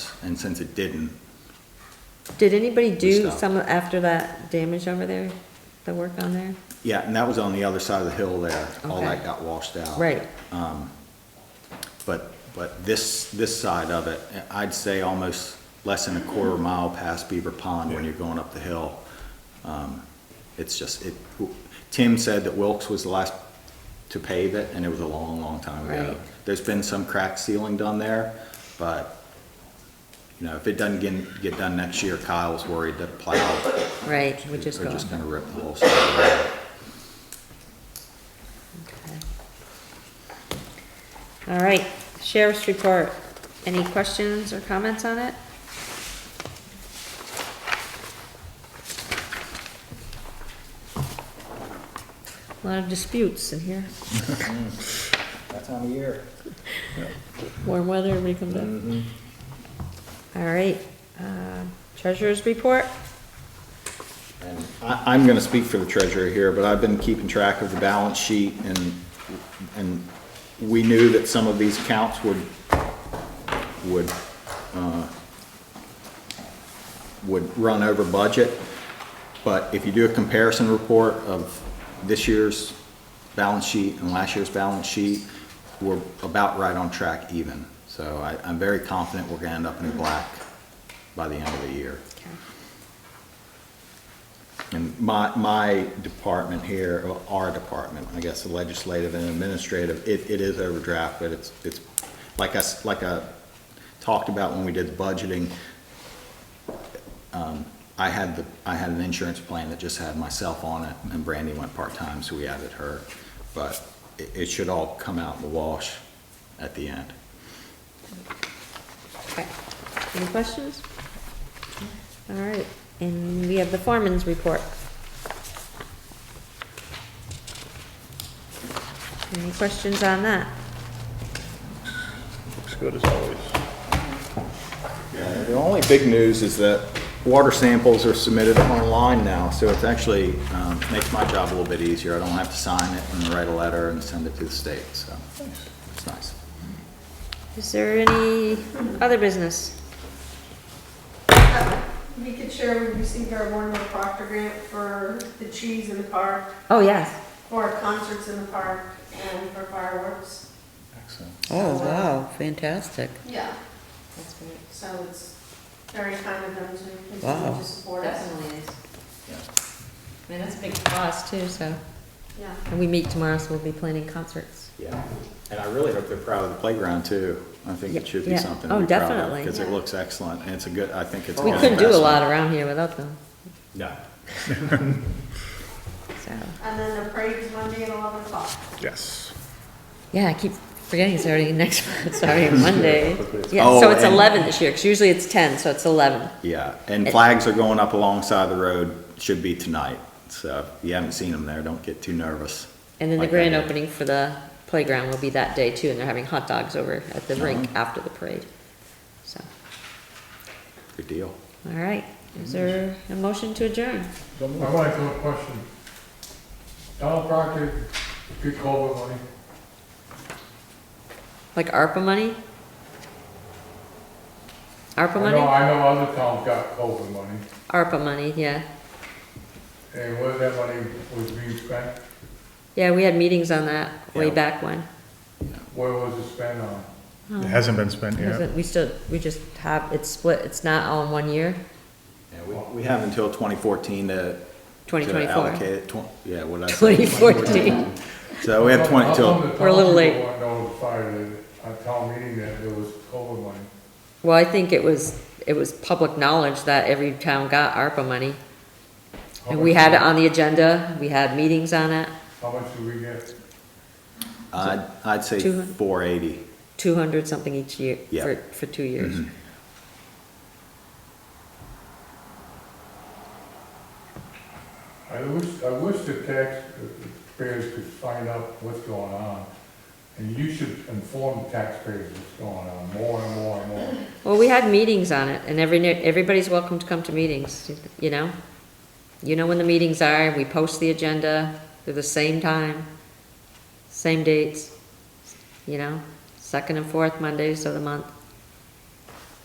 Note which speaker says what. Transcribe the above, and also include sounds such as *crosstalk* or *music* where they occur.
Speaker 1: and since it didn't,
Speaker 2: Did anybody do
Speaker 1: stopped.
Speaker 2: some after that damage over there, the work on there?
Speaker 1: yeah, and that was on the other side of the hill there, all
Speaker 2: Okay.
Speaker 1: that got washed out.
Speaker 2: Right,
Speaker 1: But, but this, this side of it, I'd say almost less than a quarter mile past Beaver Pond when you're going up the hill. Um, It's just, it, Tim said that Wilkes was the last to pave it, and it was a long, long time ago.
Speaker 2: Right.
Speaker 1: There's been some crack sealing done there, but, you know, if it doesn't get, get done next year, Kyle's worried that plow,
Speaker 2: right, which is
Speaker 1: they're
Speaker 2: gone.
Speaker 1: just gonna rip the whole side.
Speaker 2: Okay. All right, sheriff's report. Any questions or comments on it? A Lot of disputes in here.
Speaker 1: That time of year.
Speaker 2: Warm weather, we come down.
Speaker 1: Mm-hmm.
Speaker 2: All right, um, treasurer's report?
Speaker 1: And I, I'm gonna speak for the treasurer here, but I've been keeping track of the balance sheet and, and we knew that some of these accounts would, would, uh, would run over budget. But if you do a comparison report of this year's balance sheet and last year's balance sheet, we're about right on track even. So I, I'm very confident we're gonna end up in the black by the end of the year. And my, my department here, or our department, I guess, the legislative and administrative, it, it is overdraft, but it's, it's, like I, s- like I talked about when we did the budgeting, um, I had the, I had an insurance plan that just had myself on it, and Brandy went part-time, so we added her. But it, it should all come out in the wash at the end.
Speaker 2: Okay, any questions? All right, and we have the foreman's report. Any questions on that?
Speaker 3: Looks good as always.
Speaker 1: The only big news is that water samples are submitted online now, so it's actually, um, makes my job a little bit easier. I don't have to sign it and write a letter and send it to the state, so it's nice.
Speaker 2: Is there any other business?
Speaker 4: We could share, we received our Warner Proctor grant for the trees in the park,
Speaker 2: Oh, yes.
Speaker 4: for concerts in the park, and for fireworks.
Speaker 5: Oh, wow, fantastic.
Speaker 4: Yeah. So it's very kind of them to continue
Speaker 5: Wow.
Speaker 4: to support us.
Speaker 2: is. I mean, that's a big cost too, so.
Speaker 4: Yeah.
Speaker 2: And we meet tomorrow, so we'll be planning concerts.
Speaker 1: Yeah, and I really hope they're proud of the playground too. I think it should be
Speaker 2: Yeah.
Speaker 1: something
Speaker 2: Oh,
Speaker 1: to be proud of.
Speaker 2: definitely.
Speaker 1: Because it looks excellent, and it's a good, I think it's. a
Speaker 2: We
Speaker 1: good
Speaker 2: couldn't do a lot
Speaker 1: investment.
Speaker 2: around here without them,
Speaker 1: Yeah.
Speaker 2: so.
Speaker 4: And then the parade is Monday at 11 o'clock.
Speaker 3: Yes.
Speaker 2: Yeah, I keep forgetting it's already next, *laughs* it's already Monday. Yeah,
Speaker 1: Oh,
Speaker 2: so it's
Speaker 1: and-
Speaker 2: 11 this year, 'cause usually it's 10, so it's 11.
Speaker 1: Yeah, and flags are going up alongside the road, should be tonight. So if you haven't seen them there, don't get too nervous.
Speaker 2: And then the
Speaker 1: Like I
Speaker 2: grand
Speaker 1: did.
Speaker 2: opening for the playground will be that day too, and they're having hot dogs over at the
Speaker 1: Oh.
Speaker 2: rink after the parade. So,
Speaker 1: Good deal.
Speaker 2: all right, is there a motion to adjourn?
Speaker 6: My wife has a question. Donald Proctor, good culvert money.
Speaker 2: Like ARPA money? ARPA
Speaker 6: I know,
Speaker 2: money?
Speaker 6: I know other towns got culvert money,
Speaker 2: ARPA money, yeah.
Speaker 6: and whether that money was being spent,
Speaker 2: Yeah, we had meetings on that way
Speaker 1: Yeah.
Speaker 2: back when.
Speaker 6: where was it spent on?
Speaker 3: It hasn't been spent yet.
Speaker 2: We still, we just have, it's split, it's not all in one year,
Speaker 1: Yeah, we, we have until 2014 to. To
Speaker 2: 2024.
Speaker 1: allocate it, twen- yeah, what did I say?
Speaker 2: 2014.
Speaker 1: So we have 20
Speaker 6: How
Speaker 1: till,
Speaker 6: come the
Speaker 2: We're a little
Speaker 6: town
Speaker 2: late.
Speaker 6: people weren't notified at a town meeting that there was culvert money?
Speaker 2: Well, I think it was, it was public knowledge that every town got ARPA money.
Speaker 6: How
Speaker 2: And we
Speaker 6: much-
Speaker 2: had it on the agenda, we had meetings on it,
Speaker 6: How much did we get?
Speaker 1: I'd, I'd say
Speaker 2: 200.
Speaker 1: 480.
Speaker 2: two hundred something each year,
Speaker 1: Yeah.
Speaker 2: for, for two years.
Speaker 6: I wish, I wish the taxpayers could find out what's going on, and you should inform taxpayers what's going on, more and more and more.
Speaker 2: Well, we had meetings on it, and every, ne- everybody's welcome to come to meetings, you know? You know when the meetings are, we post the agenda, they're the same time, same dates, you know? Second and fourth Mondays of the month.